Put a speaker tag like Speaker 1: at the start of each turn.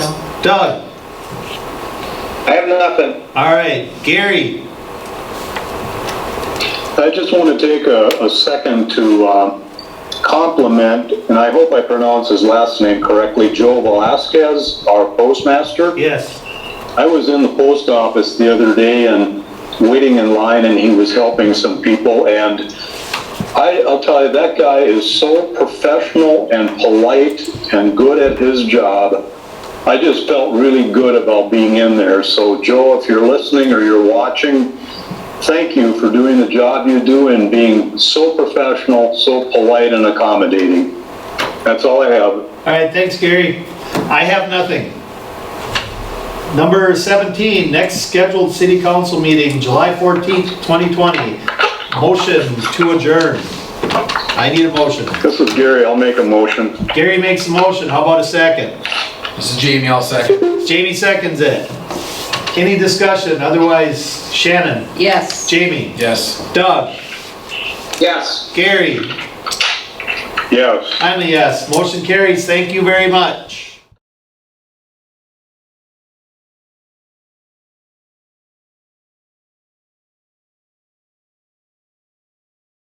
Speaker 1: Doug?
Speaker 2: I have nothing.
Speaker 1: All right, Gary?
Speaker 3: I just want to take a, a second to um, compliment, and I hope I pronounce his last name correctly, Joe Velasquez, our postmaster.
Speaker 1: Yes.
Speaker 3: I was in the post office the other day and waiting in line, and he was helping some people. And I, I'll tell you, that guy is so professional and polite and good at his job. I just felt really good about being in there. So, Joe, if you're listening or you're watching, thank you for doing the job you do and being so professional, so polite, and accommodating. That's all I have.
Speaker 1: All right, thanks, Gary. I have nothing. Number 17, next scheduled city council meeting, July 14th, 2020. Motion to adjourn. I need a motion.
Speaker 3: This is Gary. I'll make a motion.
Speaker 1: Gary makes a motion, how about a second?
Speaker 4: This is Jamie, I'll second.
Speaker 1: Jamie seconds it. Any discussion, otherwise Shannon,
Speaker 5: Yes.
Speaker 1: Jamie,
Speaker 4: Yes.
Speaker 1: Doug,
Speaker 2: Yes.
Speaker 1: Gary,
Speaker 3: Yes.
Speaker 1: I'm a yes. Motion carries, thank you very much.